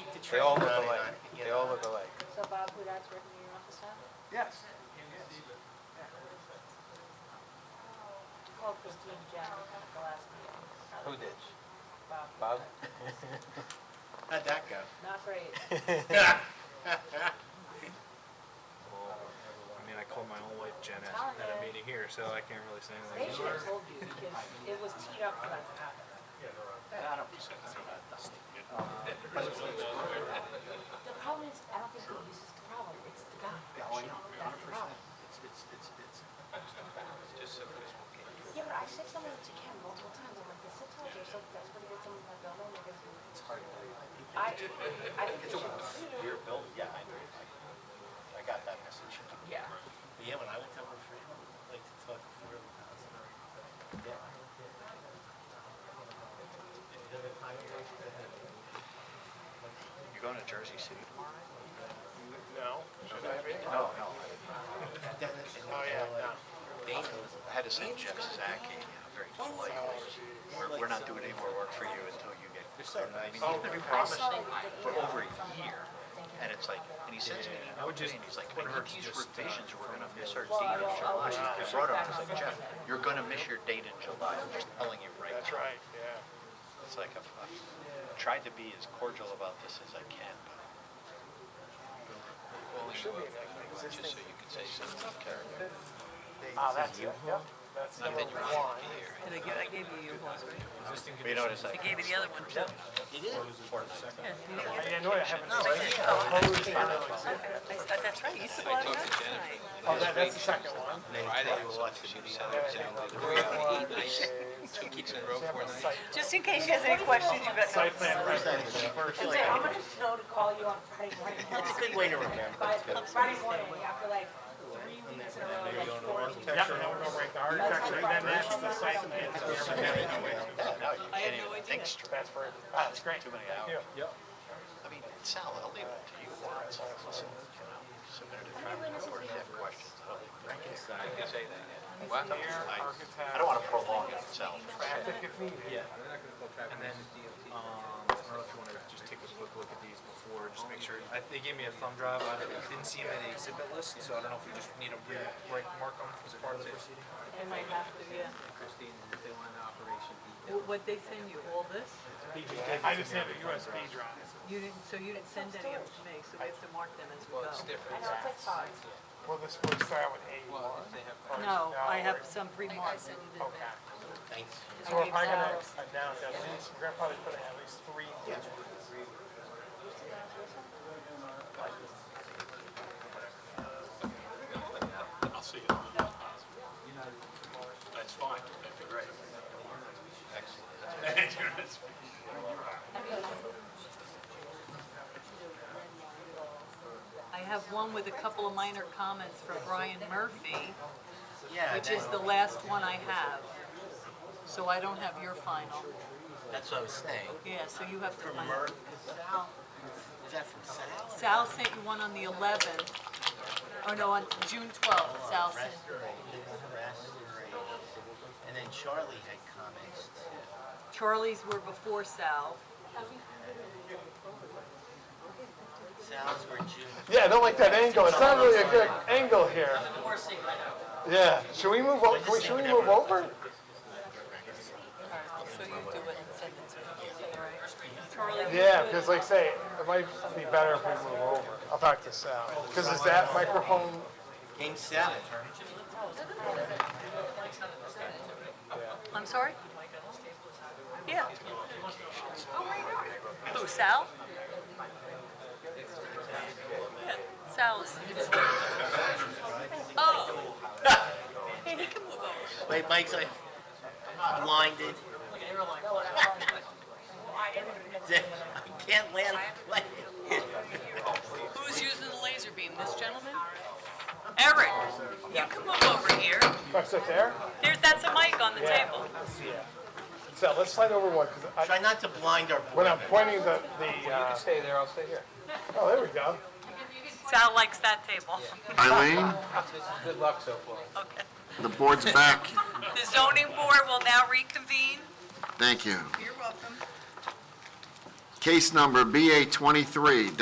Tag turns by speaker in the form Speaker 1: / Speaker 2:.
Speaker 1: They all look alike. They all look alike.
Speaker 2: So Bob Hudat's working in your office now?
Speaker 1: Yes.
Speaker 2: Called Christine Jack at the last meeting.
Speaker 1: Who did?
Speaker 2: Bob.
Speaker 1: Bob?
Speaker 3: How'd that go?
Speaker 2: Not great.
Speaker 4: I mean, I called my own wife Jen at,
Speaker 2: Telling
Speaker 4: at a
Speaker 2: you.
Speaker 4: meeting here, so I can't really say
Speaker 2: Oh, They
Speaker 4: anything.
Speaker 2: should have told you because it was teed up for that to happen.
Speaker 3: I don't think so.
Speaker 2: The problem is, I don't think the use is the problem, it's the guy.
Speaker 3: Yeah, oh, I know, hundred percent. It's, it's, it's, it's,
Speaker 2: Yeah, but I said something to Ken multiple times, I'm like, the sit times are so desperate to get someone in that building because
Speaker 3: it's hard to believe.
Speaker 2: I, I think you should consider,
Speaker 3: Your building, yeah, I agree. I got that message.
Speaker 2: yeah.
Speaker 3: But yeah, when I went down to Freedom, like to talk to Freedom, I was like, yeah.
Speaker 1: You're going to Jersey City tomorrow?
Speaker 4: No.
Speaker 3: No, no. Then it- and
Speaker 4: Oh, yeah,
Speaker 3: like,
Speaker 4: no.
Speaker 3: Dana was
Speaker 1: I had to send Jeff Zaki, you know, very politely. We're, we're not doing any more work for you until you get, I mean, he's been promising for over a year. And it's like, and he sends me an
Speaker 4: I
Speaker 1: email
Speaker 4: would
Speaker 1: today
Speaker 4: just-
Speaker 1: and he's like, I
Speaker 4: would've
Speaker 1: think
Speaker 4: heard
Speaker 1: these
Speaker 4: just, uh,
Speaker 1: revisions, we're gonna miss our
Speaker 2: Well,
Speaker 1: date in
Speaker 2: I'll- I'll
Speaker 1: July. I
Speaker 2: just
Speaker 1: brought him,
Speaker 2: check
Speaker 1: I was
Speaker 2: back on
Speaker 1: like, Jeff,
Speaker 2: Sunday.
Speaker 1: you're gonna miss your date in July, I'm just telling you right now.
Speaker 4: right, yeah.
Speaker 1: It's like I've, I've tried to be as cordial about this as I can, but. Well, you will, just so you can say something of character.
Speaker 3: Ah, that's it, yeah.
Speaker 1: Not that you want to be here.
Speaker 5: And I gave, I gave you your horse, right?
Speaker 1: But you know what it's like?
Speaker 5: I gave you the other one too.
Speaker 3: It is.
Speaker 5: Yeah. you didn't get it.
Speaker 4: Yeah, no, I haven't.
Speaker 5: No, I didn't. Oh,
Speaker 3: Oh,
Speaker 5: I- I- That's right, you saw it last night.
Speaker 3: that, that's the second one.
Speaker 1: Friday, we'll watch the movie. Two weeks in a row, four nights.
Speaker 5: Just in case you has any questions, you've got. Site plan, right.
Speaker 2: And say, I'm gonna know to call you on Friday morning.
Speaker 3: It's a good way to remember.
Speaker 2: By Friday morning, after like three weeks in a row, like four weeks.
Speaker 4: Yeah, no, we're going right to architecture, and then that's the site plan.
Speaker 1: No, you
Speaker 5: I
Speaker 1: can't
Speaker 5: had no
Speaker 1: even
Speaker 5: idea.
Speaker 1: think straight.
Speaker 4: That's where, ah, it's great.
Speaker 1: Too many hours.
Speaker 4: Yep.
Speaker 1: I mean, Sal, I'll leave it to you. It's like, listen, you know, submitted a draft report, if you have questions, I don't think they care. I can say that. What? I I don't want to prolong it, Sal.
Speaker 4: And then, um, I don't know if you wanna just take a quick look at these before, just make sure, I, they gave me a thumb drive, I didn't see them in the exhibit list, so I don't know if we just need to re-mark them as part of the proceeding.
Speaker 2: It might have to, yeah.
Speaker 5: Wh- What'd they send you, all this?
Speaker 4: I just have a USB drive.
Speaker 5: You didn't, so you didn't send any of it to me, so we have to mark them as we go.
Speaker 2: I know, it's like five.
Speaker 4: Well, this would start with A one.
Speaker 5: No, I have some pre-marked.
Speaker 4: Okay.
Speaker 3: Thanks.
Speaker 5: I
Speaker 4: So am
Speaker 5: gave
Speaker 4: I gonna
Speaker 5: Sal-
Speaker 4: announce at least, we're gonna probably put in at least three.
Speaker 6: I'll see you. That's fine. That'd be great. Excellent.
Speaker 5: I have one with a couple of minor comments from Brian Murphy,
Speaker 3: Yeah,
Speaker 5: which is the last one I have. So I don't have your final.
Speaker 3: that's what I was saying.
Speaker 5: Yeah, so you have to
Speaker 3: From
Speaker 5: find.
Speaker 3: Murph, is Sal, is that from Sal?
Speaker 5: Sal sent you one on the 11th, oh no, on June 12th, Sal sent.
Speaker 3: Restoration, restoration. And then Charlie had comments too.
Speaker 5: Charlie's were before Sal.
Speaker 3: Sal's were June.
Speaker 7: Yeah, I don't like that angle. It's not really a good angle here. Yeah, should we move over? Should we move over?
Speaker 5: So you do it and send it to him, right? Charlie,
Speaker 7: Yeah, because like say, it might be better if we move over. I'll talk to Sal. Because is that microphone?
Speaker 3: Game seven.
Speaker 5: I'm sorry? Yeah. Oh, Sal? Yeah, Sal is. it's- Oh. Hey, he can move over.
Speaker 3: Wait, Mike's like blinded. I can't land the plane.
Speaker 5: Who's using the laser beam, this gentleman? Eric, you can move over here.
Speaker 7: That's it there?
Speaker 5: There, that's a mic on the
Speaker 7: Yeah.
Speaker 5: table.
Speaker 7: Sal, let's slide over one because
Speaker 3: Try not to blind our board.
Speaker 7: when I'm pointing the, the, uh,
Speaker 1: Stay there, I'll stay here.
Speaker 7: oh, there we go.
Speaker 5: Sal likes that table.
Speaker 8: Eileen,
Speaker 1: Good luck so far.
Speaker 5: Okay.
Speaker 8: the board's back.
Speaker 5: The zoning board will now reconvene.
Speaker 8: Thank you.
Speaker 5: You're welcome.
Speaker 8: Case number BA 23-.